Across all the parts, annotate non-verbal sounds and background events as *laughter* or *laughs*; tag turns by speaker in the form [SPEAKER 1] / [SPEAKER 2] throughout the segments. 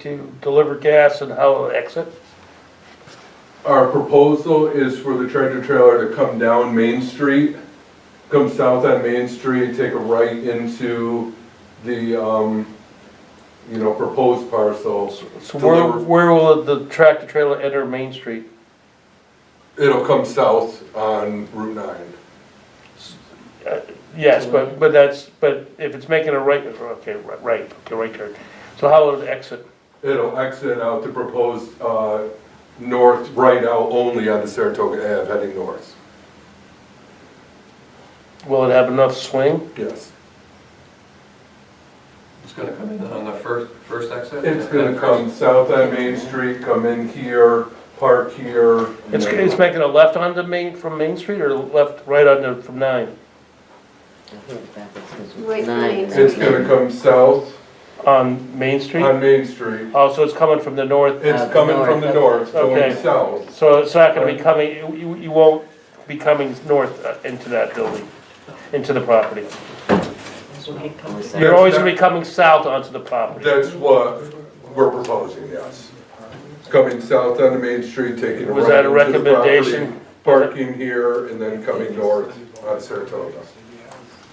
[SPEAKER 1] to deliver gas and how to exit?
[SPEAKER 2] Our proposal is for the tractor trailer to come down Main Street, come south on Main Street, take a right into the, um, you know, proposed parcel.
[SPEAKER 1] So where,
[SPEAKER 2] Deliver.
[SPEAKER 1] where will the tractor trailer enter Main Street?
[SPEAKER 2] It'll come south on Route nine.
[SPEAKER 1] Yes, but, but that's, but if it's making a right, okay, right, right, okay, right turn. So how will it exit?
[SPEAKER 2] It'll exit out the proposed, uh, north, right out only on the Saratoga Ave, heading north.
[SPEAKER 1] Will it have enough swing?
[SPEAKER 2] Yes.
[SPEAKER 3] It's gonna come in on the first, first exit?
[SPEAKER 2] It's gonna come south on Main Street, come in here, park here. and
[SPEAKER 1] It's,
[SPEAKER 2] then-
[SPEAKER 1] it's making a left onto Main, from Main Street or left, right onto, from nine?
[SPEAKER 4] Wait,
[SPEAKER 5] Nine.
[SPEAKER 4] wait.
[SPEAKER 2] It's gonna come south
[SPEAKER 1] On Main Street?
[SPEAKER 2] on Main Street.
[SPEAKER 1] Oh, so it's coming from the north,
[SPEAKER 2] It's coming from the north, going
[SPEAKER 1] Okay.
[SPEAKER 2] south.
[SPEAKER 1] so it's not gonna be coming, you- you, you won't be coming north uh, into that building, into the property. You're always gonna be coming south onto the property.
[SPEAKER 2] That's what we're proposing, yes. Coming south on the Main Street, taking a
[SPEAKER 1] Was that
[SPEAKER 2] right
[SPEAKER 1] a
[SPEAKER 2] into the property,
[SPEAKER 1] recommendation?
[SPEAKER 2] parking here, and then coming north on Saratoga.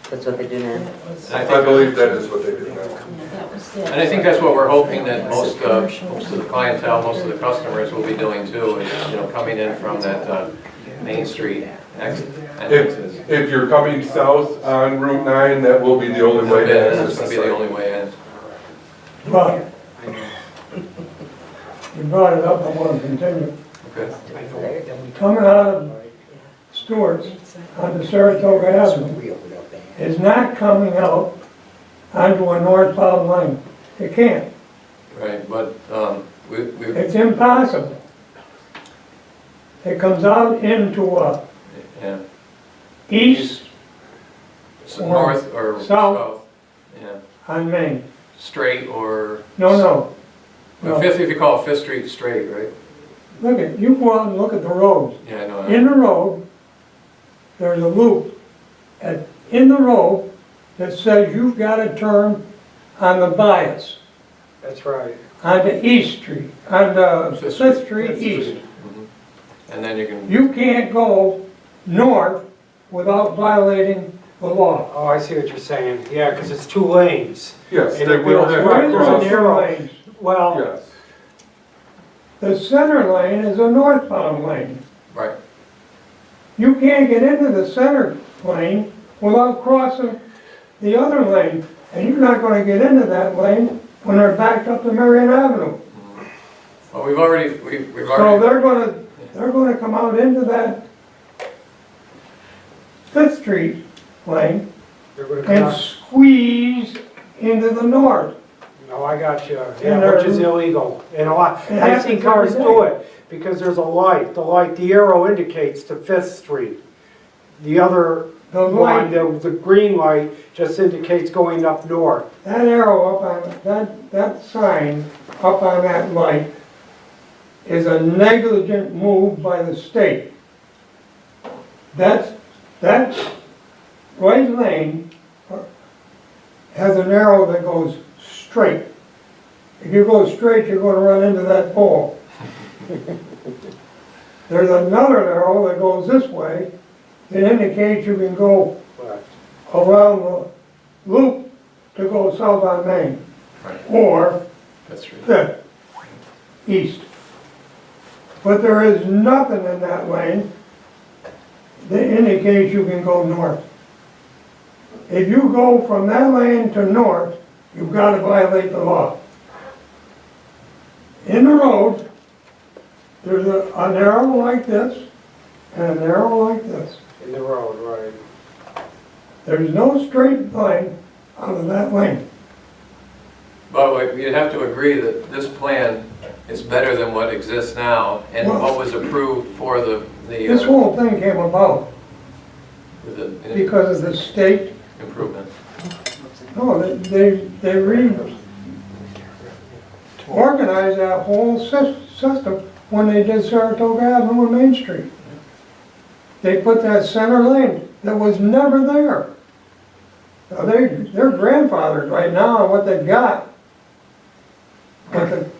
[SPEAKER 5] That's what they do now.
[SPEAKER 3] And I
[SPEAKER 2] I
[SPEAKER 3] think-
[SPEAKER 2] believe that is what they do now.
[SPEAKER 3] And I think that's what we're hoping that most, uh, most of the clientele, most of the customers will be doing too, is, you know, coming in from that, uh, Main Street exit. and exits.
[SPEAKER 2] If, if you're coming south on Route 9, that will be the only way to
[SPEAKER 3] That's
[SPEAKER 2] access the
[SPEAKER 3] gonna be the
[SPEAKER 2] site.
[SPEAKER 3] only way in.
[SPEAKER 6] Right. You brought it up, I want to continue.
[SPEAKER 3] Okay.
[SPEAKER 6] Coming out of Stewart's onto Saratoga Avenue is not coming out onto a northbound lane. It can't.
[SPEAKER 3] Right, but, um, we, we,
[SPEAKER 6] It's impossible. It comes out into a
[SPEAKER 3] yeah,
[SPEAKER 6] east
[SPEAKER 3] So north or
[SPEAKER 6] South.
[SPEAKER 3] south, yeah,
[SPEAKER 6] on Main.
[SPEAKER 3] straight or,
[SPEAKER 6] No, no.
[SPEAKER 3] Well,
[SPEAKER 6] No.
[SPEAKER 3] Fifth, if you call it Fifth Street straight, right?
[SPEAKER 6] Look at, you go out and look at the roads.
[SPEAKER 3] Yeah, I know.
[SPEAKER 6] In the road, there's a loop, and in the road, that says you've gotta turn on the bias,
[SPEAKER 7] That's right.
[SPEAKER 6] onto East Street, onto Fifth Street East.
[SPEAKER 3] And then you can,
[SPEAKER 6] You can't go north without violating the law.
[SPEAKER 7] Oh, I see what you're saying. Yeah, because it's two lanes.
[SPEAKER 2] Yes,
[SPEAKER 7] And
[SPEAKER 2] they
[SPEAKER 7] if
[SPEAKER 2] will
[SPEAKER 7] it's
[SPEAKER 2] have
[SPEAKER 7] right
[SPEAKER 2] to
[SPEAKER 6] Where's the
[SPEAKER 2] cross.
[SPEAKER 6] center lanes?
[SPEAKER 7] Well,
[SPEAKER 2] Yes,
[SPEAKER 6] The center lane is a northbound lane.
[SPEAKER 3] right,
[SPEAKER 6] You can't get into the center lane without crossing the other lane, and you're not gonna get into that lane when they're backed up to Marion Avenue.
[SPEAKER 3] well, we've already, we've, we've
[SPEAKER 6] So
[SPEAKER 3] already,
[SPEAKER 6] they're gonna, they're gonna come out into that Fifth Street lane
[SPEAKER 7] they're gonna come
[SPEAKER 2] Uh-huh.
[SPEAKER 6] and
[SPEAKER 7] out.
[SPEAKER 6] squeeze into the north.
[SPEAKER 7] No, I got you.
[SPEAKER 6] they're-
[SPEAKER 7] Yeah, which is illegal. And a lot,
[SPEAKER 6] And
[SPEAKER 7] I've
[SPEAKER 6] half
[SPEAKER 7] seen
[SPEAKER 6] the
[SPEAKER 7] cars
[SPEAKER 6] cars
[SPEAKER 7] do it because there's a light. The light, the arrow indicates to Fifth Street. The other
[SPEAKER 6] The
[SPEAKER 7] one,
[SPEAKER 6] light,
[SPEAKER 7] the, the green light just indicates going up north.
[SPEAKER 6] that arrow up on, that, that sign up on that light is a negligent move by the state. That's, that right lane has an arrow that goes straight. If you go straight, you're gonna run into that pole. *laughs* There's another arrow that goes this way that indicates you can go
[SPEAKER 7] But
[SPEAKER 6] around the loop to go south on Main,
[SPEAKER 3] right,
[SPEAKER 6] or
[SPEAKER 3] Fifth Street.
[SPEAKER 6] the east. But there is nothing in that lane that indicates you can go north. If you go from that lane to north, you've got to violate the law. In the road, there's a, an arrow like this and an arrow like this.
[SPEAKER 7] In the road, right.
[SPEAKER 6] There's no straight line out of that lane.
[SPEAKER 3] But we- you'd have to agree that this plan is better than what exists now and what was approved for the, the. uh,
[SPEAKER 6] This whole thing came about
[SPEAKER 3] the- the
[SPEAKER 6] because of the state,
[SPEAKER 3] Improvement.
[SPEAKER 6] no, they- they, they re, organized that whole sys- system when they did Saratoga Avenue and Main Street. They put that center lane that was never there. Now, they, they're grandfathered right now on what they've got. But the